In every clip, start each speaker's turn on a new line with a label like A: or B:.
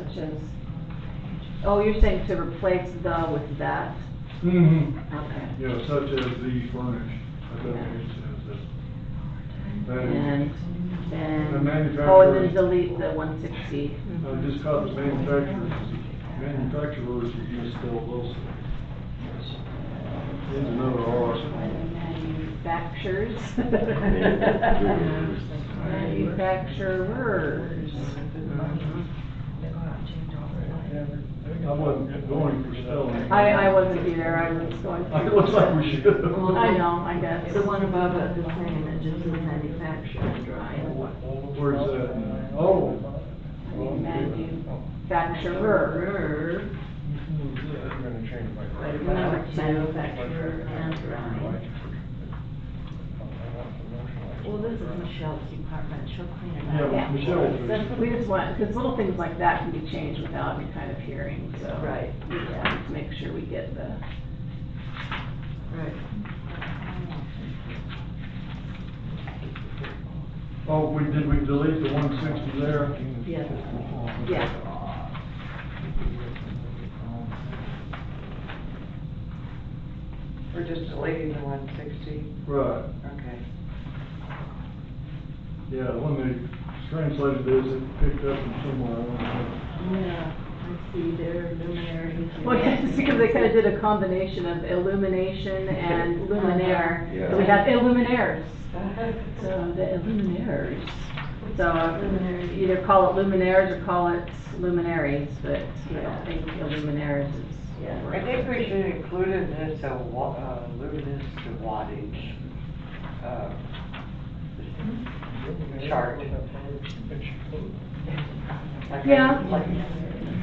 A: options. Oh, you're saying to replace the with that?
B: Mm-hmm.
A: Okay.
B: Yeah, such as the furnished, I don't think it says that. That is-
A: And,
B: The
A: and,
B: manufacturer-
A: oh, and then delete the one sixty.
B: I just caught the manufacturers, manufacturers are used still also. Here's another R.
A: Manufacturers.
C: Manufacturers.
A: Manufacturers.
B: I wasn't going for spelling.
A: I, I wasn't here, I was going.
B: It looks like we should.
A: I know, I guess.
D: The one above it, the same, it just says manufacturing, right?
B: Where's that? Oh.
A: Manufacturer.
D: Manufacturer,
B: I'm gonna change my.
D: but about manufacturer and right. Well, this is Michelle's department, she'll clean it up.
B: Yeah, Michelle.
A: That's- We just want, because little things like that can be changed without any kind of hearing, so.
D: Right.
A: Yeah, just make sure we get the,
D: Right.
B: Oh, we, did we delete the one sixty there?
D: Yes.
A: yeah.
E: We're just deleting the one sixty,
B: Right,
E: okay.
B: yeah, when they translated this, it picked up from somewhere. I don't know.
D: Yeah, I see their luminaries.
A: Well, yes, because they kind of did a combination of illumination and luminaire.
C: Yeah.
A: So we have illuminaires, so the illuminaires. So
D: Luminaries.
A: either call it luminaires or call it luminaries, but I
D: Yeah.
A: don't think illuminaires is.
D: Yeah.
E: I think we should include in this a wa, uh, luminous to wattage, uh, chart. Like I-
A: Yeah.
E: like-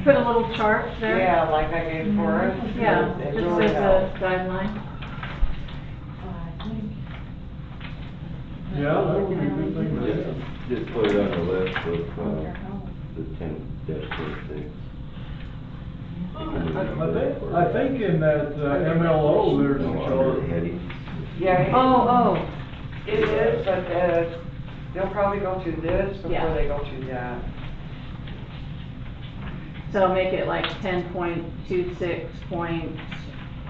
A: Put a little chart there.
E: Yeah, like I did for us.
A: Mm-hmm. Yeah,
E: It
A: just
E: really
A: as a
E: helps.
A: guideline.
B: Yeah, that would be a good thing to have.
C: Just put it on the list of, uh, the ten dash twenty-six.
B: I think, I think in that uh, MLO, there's a chart.
C: Heading.
E: Yeah.
A: Oh, oh,
E: It is, but, uh, they'll probably go through this
A: Yeah.
E: before they go through that.
A: so make it like ten point two six point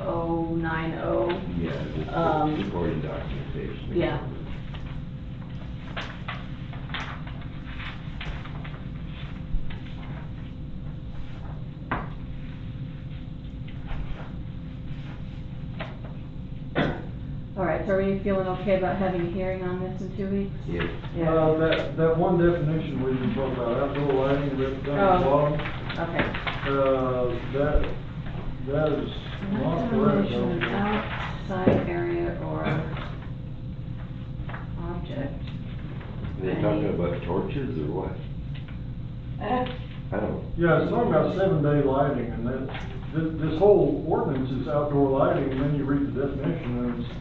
A: oh nine oh.
C: Yeah, just
A: Um,
C: supporting documentation.
A: yeah. All right, so are we feeling okay about having a hearing on this in two weeks?
C: Yeah.
B: Uh, that, that one definition we were talking about, outdoor lighting, written down at the
A: Oh.
B: bottom,
A: Okay.
B: uh, that, that is not correct. I don't
A: Illumination
B: think.
A: Outside area or object.
C: They talking about torches or what?
A: Uh,
C: I don't.
B: Yeah, it's talking about seven-day lighting, and that, this, this whole ordinance is outdoor lighting, and then you read the definition, and it's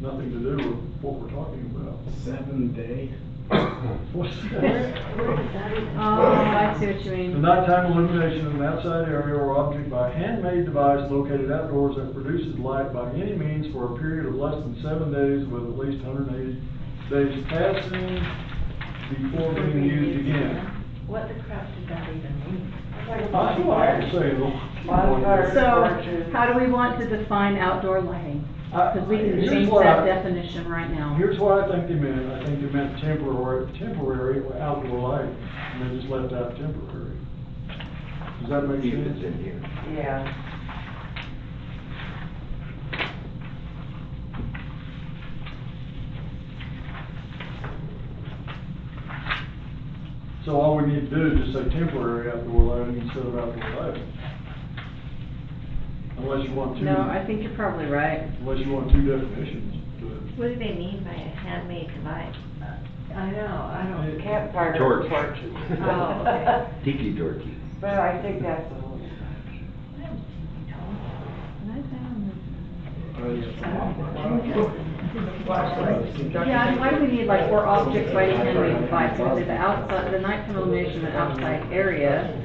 B: nothing to do with what we're talking about.
F: Seven day?
B: What's that?
D: Oh,
A: Oh, I see what you
B: The
A: mean.
B: nighttime illumination of an outside area or object by handmade device located outdoors that produces light by any means for a period of less than seven days with at least hundred and eighty days passing before being used again.
D: What the crap did that even mean?
B: I feel like I'm saying,
E: Bonfire.
A: So, how do we want to define outdoor lighting?
B: Uh,
A: Because we can change that definition right now.
B: Here's what I think they meant, I think they meant temporary, temporary outdoor lighting, and they just left out temporary. Does that make
C: Keep it
B: sense?
C: in here.
E: Yeah.
B: So all we need to do is just say temporary outdoor lighting instead of outdoor lighting. Unless you want two,
A: No, I think you're probably right.
B: unless you want two definitions to it.
G: What do they mean by a handmade device?
D: I know, I don't.
E: Campfire
C: Torch.
E: torches.
D: Oh, okay.
C: Tiki dorky.
E: But I think that's a little.
A: Yeah, and why do we need like, or object by handmade device? Because the outside, the nighttime illumination of an outside area